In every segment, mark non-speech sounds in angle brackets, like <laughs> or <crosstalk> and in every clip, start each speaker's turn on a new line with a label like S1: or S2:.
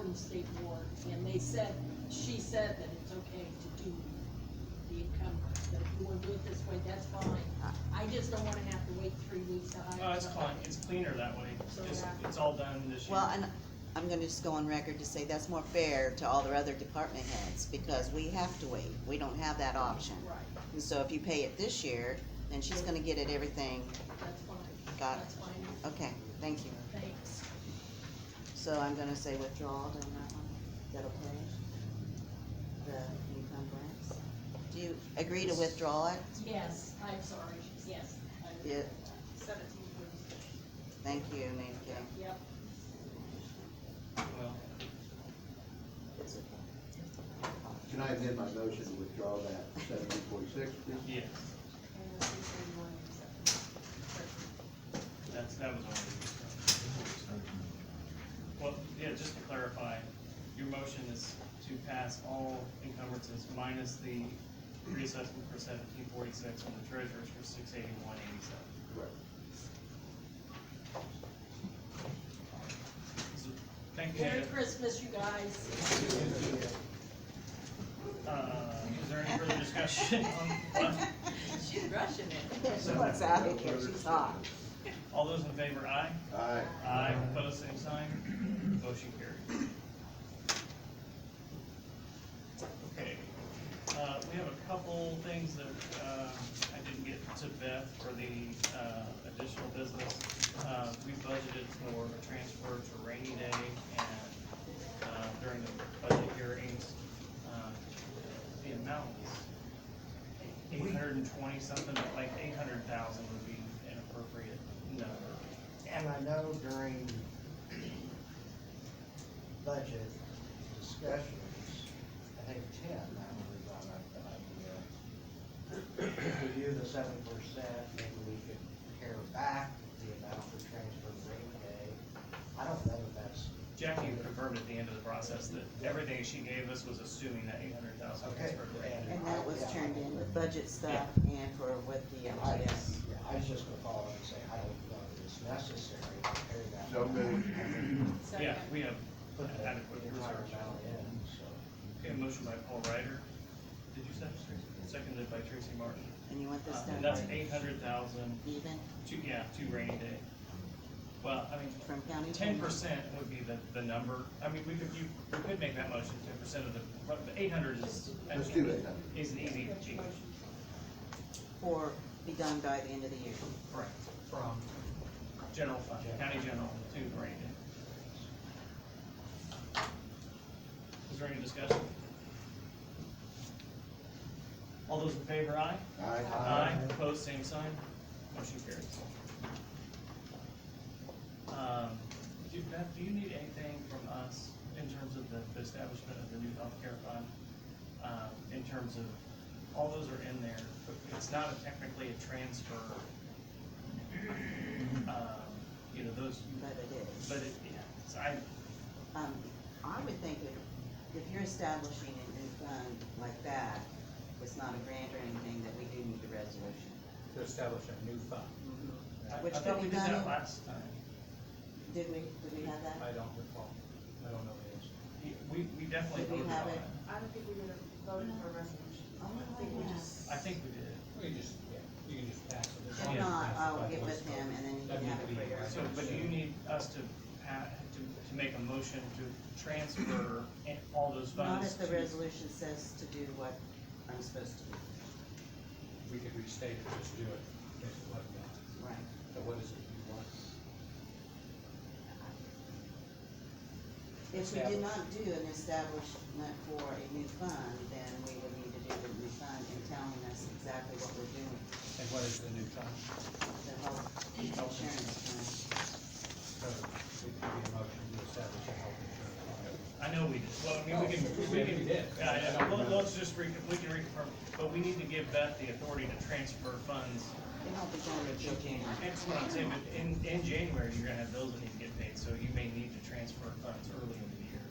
S1: the state board, and they said, she said that it's okay to do the encumbrance, that if you wanna do it this way, that's fine. I just don't wanna have to wait three weeks to hire.
S2: No, it's
S1: somebody.
S2: fine, it's cleaner that way,
S1: So,
S2: it's,
S1: yeah.
S2: it's all done this year.
S3: Well, and I'm gonna just go on record to say that's more fair to all their other department heads, because we have to wait, we don't have that option.
S1: Right,
S3: And so if you pay it this year, then she's gonna get it everything,
S1: that's fine.
S3: Got it.
S1: That's fine,
S3: okay, thank you.
S1: thanks.
S3: So I'm gonna say withdrawal on that one, is that okay? The encumbrance, do you agree to withdraw it?
S1: Yes, I'm sorry, yes. I-
S3: Yeah.
S1: Seventeen years,
S3: Thank you, Nate K.
S1: yep.
S2: Well,
S4: Can I amend my motion to withdraw that seventeen forty-six?
S2: yeah,
S1: And the 331 exception.
S2: that's, that was only. Well, yeah, just to clarify, your motion is to pass all encumbrances minus the reassessment for seventeen forty-six and the treasurer's for six eighty-one eighty-seven. Thank you,
S1: Merry
S2: Janet.
S1: Christmas, you guys.
S2: Uh, is there any further discussion on, on,
S1: She's rushing it.
S3: <laughs> She wants out of here, she's hot.
S2: all those in favor, aye?
S4: Aye.
S2: Aye, opposed, same sign, motion carried. Okay, uh, we have a couple things that, uh, I didn't get to Beth for the, uh, additional business. Uh, we budgeted for a transfer to rainy day and, uh, during the budget hearings, uh, the amount is eight hundred and twenty something, but like eight hundred thousand would be an appropriate number.
S5: And I know during budget discussions, I think ten, I was on that idea. Review the seven percent, maybe we could pare back the amount for transfer to rainy day. I don't know if that's,
S2: Jackie confirmed at the end of the process that everything she gave us was assuming that eight hundred thousand was
S5: Okay.
S2: for the grant.
S3: And that was turned in with budget stuff and for with the
S5: I,
S3: MTS.
S5: yeah, I was just gonna follow up and say, I don't know if it's necessary to pare that.
S4: So moved.
S2: Yeah,
S1: Second.
S2: we have
S5: Put the
S2: adequate
S5: entire
S2: reserves.
S5: amount in, so.
S2: Okay, motion by Paul Ryder, did you say, seconded by Tracy Martin?
S3: And you want this
S2: Uh,
S3: done?
S2: And that's eight hundred thousand,
S3: Even
S2: two, yeah, two rainy day. Well, I mean,
S3: from county?
S2: ten
S3: general?
S2: percent would be the, the number, I mean, we could, you, we could make that motion, ten percent of the, but the eight hundred is.
S4: Let's do 800.
S2: Is an easy achieve,
S3: Or be done by the end of the year.
S2: correct,
S5: From
S2: general fund, county general to rainy day. Is there any discussion? All those in favor, aye?
S4: Aye.
S2: Opposed, same sign, motion carries. Um, do, Beth, do you need anything from us in terms of the, the establishment of the new healthcare fund? Um, in terms of, all those are in there, but it's not a- technically a transfer. Um, you know, those,
S3: But it is.
S2: but it, yeah, so I,
S3: Um, I would think if, if you're establishing a new fund like that, it's not a grant or anything, that we do need a resolution.
S6: to establish a new fund.
S2: I- I
S3: Which
S2: thought
S3: could
S2: we
S3: be
S2: did
S3: done
S2: that
S3: in-
S2: last time.
S3: Did we, did we have that?
S6: I don't recall, I don't know the answer.
S2: Yeah, We, we definitely
S3: Did we
S2: voted
S3: have
S2: on
S3: it?
S2: it.
S7: I don't think we would have voted for a resolution.
S3: Oh,
S7: I think we
S3: yeah.
S7: just.
S2: I think we did.
S6: You can just, yeah, you can just pass it. As long as
S3: If
S2: Yeah.
S6: it's
S3: not,
S6: passed
S3: I'll
S6: by
S3: get
S6: voice
S3: with him
S6: vote.
S3: and then he
S6: That'd
S3: can
S6: need
S3: have it for
S6: to be-
S3: your.
S2: So, but do you need us to pa- to, to make a motion to transfer in- all those
S3: Not
S2: funds
S3: if the
S2: to?
S3: resolution says to do what I'm supposed to do.
S6: We could restate it, just do it, if it wasn't that.
S3: Right.
S6: So what is it you want?
S3: If we did not do an establishment for a new fund, then we would need to do the new fund and telling us exactly what we're doing,
S6: And what is the new fund?
S3: the whole insurance fund.
S6: So it could be a motion to establish a health insurance fund.
S2: I know we did. Well, I mean, we can,
S6: Oh, we
S2: we can,
S6: did.
S2: yeah, yeah, well, let's just re, we can reconfirm, but we need to give Beth the authority to transfer funds.
S3: It won't be going until January.
S2: That's what I'm saying, but in, in January, you're gonna have bills that need to get paid, so you may need to transfer funds early in the year.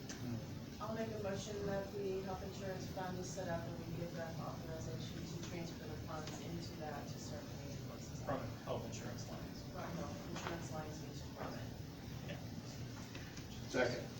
S7: I'll make a motion that the health insurance fund is set up and we give them authorization to transfer the funds into that to serve the major forces.
S2: from health insurance lines.
S7: From health insurance lines into department.
S4: Second.